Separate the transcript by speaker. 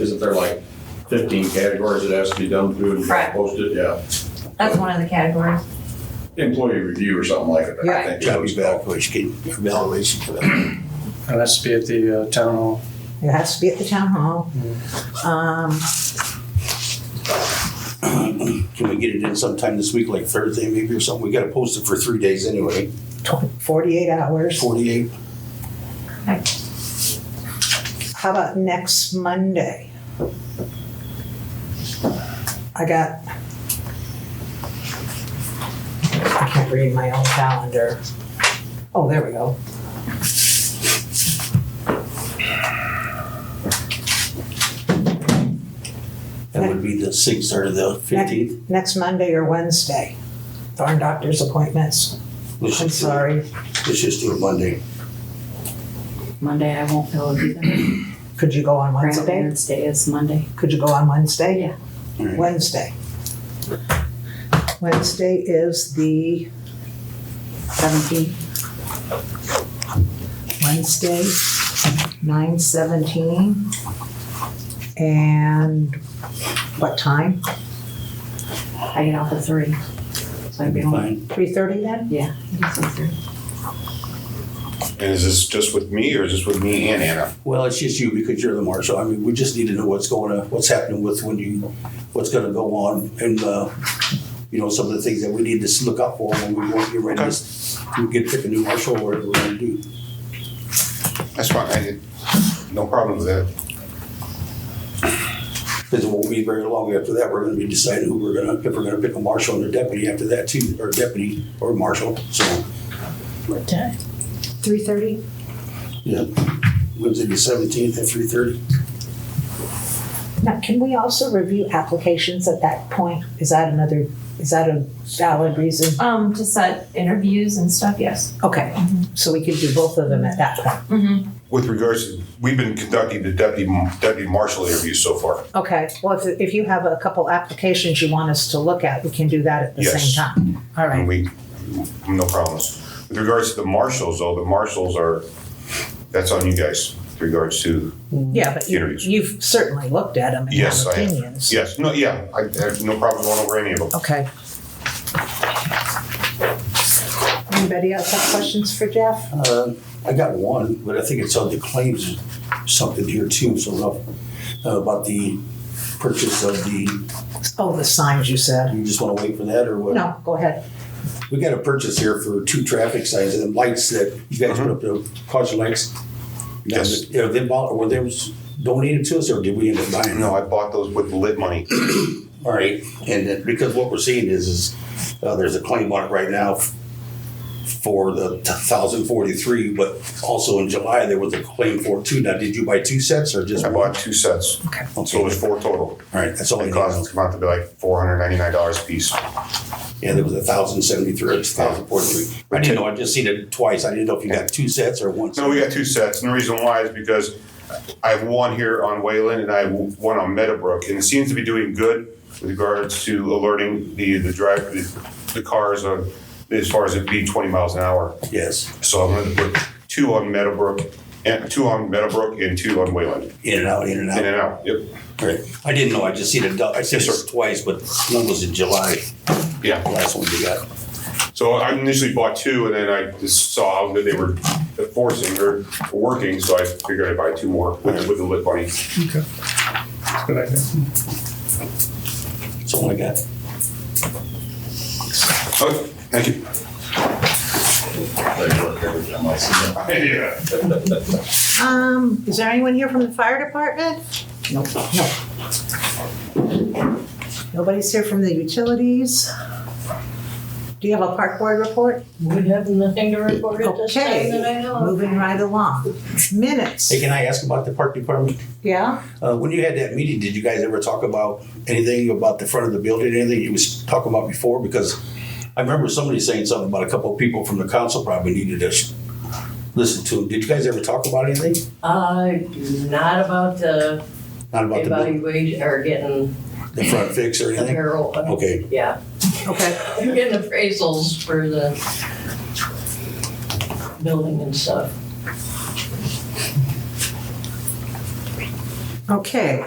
Speaker 1: Isn't there like fifteen categories that has to be done through and
Speaker 2: Right.
Speaker 1: posted? Yeah.
Speaker 2: That's one of the categories.
Speaker 1: Employee review or something like that. I
Speaker 2: Right.
Speaker 1: think
Speaker 3: Gotta be
Speaker 1: that's called.
Speaker 3: evaluation, evaluation for that.
Speaker 4: And that's to be at the uh, town hall.
Speaker 5: It has to be at the town hall. Um,
Speaker 3: Can we get it in sometime this week, like Thursday maybe or something? We gotta post it for three days anyway,
Speaker 5: tw- forty-eight hours.
Speaker 3: forty-eight.
Speaker 5: How about next Monday? I got. I can't read my own calendar. Oh, there we go.
Speaker 3: That would be the sixth or the fifteenth.
Speaker 5: Next Monday or Wednesday. Darn doctor's appointments. I'm sorry.
Speaker 3: Let's just do it Monday.
Speaker 6: Monday, I won't be able to do that.
Speaker 5: Could you go on Wednesday?
Speaker 6: Grandparents' Day is Monday.
Speaker 5: Could you go on Wednesday?
Speaker 3: Yeah.
Speaker 5: Wednesday. Wednesday is the,
Speaker 6: Seventeen.
Speaker 5: Wednesday, nine seventeen. And what time?
Speaker 6: I get off at three. So I'd
Speaker 3: That'd
Speaker 6: be
Speaker 3: be
Speaker 6: home.
Speaker 3: fine.
Speaker 5: Three thirty then?
Speaker 6: Yeah. I guess it's three.
Speaker 7: And is this just with me or is this with me and Anna?
Speaker 3: Well, it's just you because you're the marshal. I mean, we just need to know what's going on, what's happening with when you, what's gonna go on and, uh, you know, some of the things that we need to look up for when we want to get ready. to s- We get pick a new marshal or whatever we're gonna do.
Speaker 7: That's fine. I did, no problem with that.
Speaker 3: Because it won't be very long after that, we're gonna be deciding who we're gonna, if we're gonna pick a marshal and a deputy after that too, or deputy or marshal, so.
Speaker 6: What time?
Speaker 5: Three thirty?
Speaker 3: Yeah. Wednesday the seventeenth at three thirty.
Speaker 5: Now, can we also review applications at that point? Is that another, is that a valid reason?
Speaker 2: Um, to set interviews and stuff, yes.
Speaker 5: Okay, so we could do both of them at that point.
Speaker 2: Mm-hmm.
Speaker 7: With regards, to- we've been conducting the deputy, deputy marshal interviews so far.
Speaker 5: Okay, well, if, if you have a couple applications you want us to look at, we can do that at the
Speaker 7: Yes.
Speaker 5: same time. All right,
Speaker 7: And we, no problems. With regards to the marshals though, the marshals are, that's on you guys with regards to,
Speaker 5: yeah, but you,
Speaker 7: Interviews.
Speaker 5: you've certainly looked at them and
Speaker 7: Yes,
Speaker 5: have
Speaker 7: I have.
Speaker 5: opinions.
Speaker 7: yes, no, yeah, I have no problem going over any of them.
Speaker 5: Okay. Anybody else have questions for Jeff?
Speaker 3: Uh, I got one, but I think it's on the claims, something here too, so uh, about the purchase of the,
Speaker 5: Oh, the signs you said.
Speaker 3: you just wanna wait for that or what?
Speaker 5: No, go ahead.
Speaker 3: We got a purchase here for two traffic signs and lights that you guys put up, the caution lights.
Speaker 7: Yes.
Speaker 3: You know, they bought, were they was donated to us or did we end up buying them?
Speaker 7: No, I bought those with lit money.
Speaker 3: All right, and then, because what we're seeing is, is, uh, there's a claim on it right now f- for the thousand forty-three, but also in July, there was a claim for two. Now, did you buy two sets or just?
Speaker 7: I
Speaker 3: one?
Speaker 7: bought two sets.
Speaker 5: Okay.
Speaker 7: So it was four total.
Speaker 3: All right, that's all I
Speaker 7: It
Speaker 3: need.
Speaker 7: cost, come out to be like four hundred ninety-nine dollars a piece.
Speaker 3: Yeah, there was a thousand seventy-three, thousand forty-three. I didn't know, I just seen it twice. I didn't know if you got two sets or one.
Speaker 7: No,
Speaker 3: set.
Speaker 7: we got two sets, and the reason why is because I have one here on Wayland and I have one on Meadowbrook, and it seems to be doing good with regards to alerting the, the drive, the, the cars on, as far as it being twenty miles an hour.
Speaker 3: Yes,
Speaker 7: So I'm gonna put two on Meadowbrook, and two on Meadowbrook and two on Wayland,
Speaker 3: in and out, in and
Speaker 7: in
Speaker 3: out.
Speaker 7: and out, yep,
Speaker 3: All right. I didn't know, I just seen it, do- I seen
Speaker 7: Yes, sir.
Speaker 3: it twice, but one was in July, the
Speaker 7: yeah.
Speaker 3: last one we got.
Speaker 7: So I initially bought two, and then I just saw that they were forcing or working, so I figured I'd buy two more with with the lit money.
Speaker 4: Okay. Good idea.
Speaker 3: That's all I got.
Speaker 7: Okay, thank you. Yeah.
Speaker 5: Um, is there anyone here from the fire department? Nope. No. Nobody's here from the utilities. Do you have a park board report?
Speaker 8: We have nothing to report at this
Speaker 5: Okay.
Speaker 8: time that I know of.
Speaker 5: Moving right along. Minutes,
Speaker 3: Hey, can I ask about the park department?
Speaker 5: yeah?
Speaker 3: Uh, when you had that meeting, did you guys ever talk about anything about the front of the building, anything you was talking about before? Because I remember somebody saying something about a couple of people from the council probably needed to sh- listen to. Did you guys ever talk about anything?
Speaker 8: Uh, not about the
Speaker 3: Not about the, building,
Speaker 8: evaluation or getting
Speaker 3: the front fix or anything?
Speaker 8: apparel, uh,
Speaker 3: Okay,
Speaker 8: yeah,
Speaker 5: Okay,
Speaker 8: getting appraisals for the building and stuff.
Speaker 5: okay.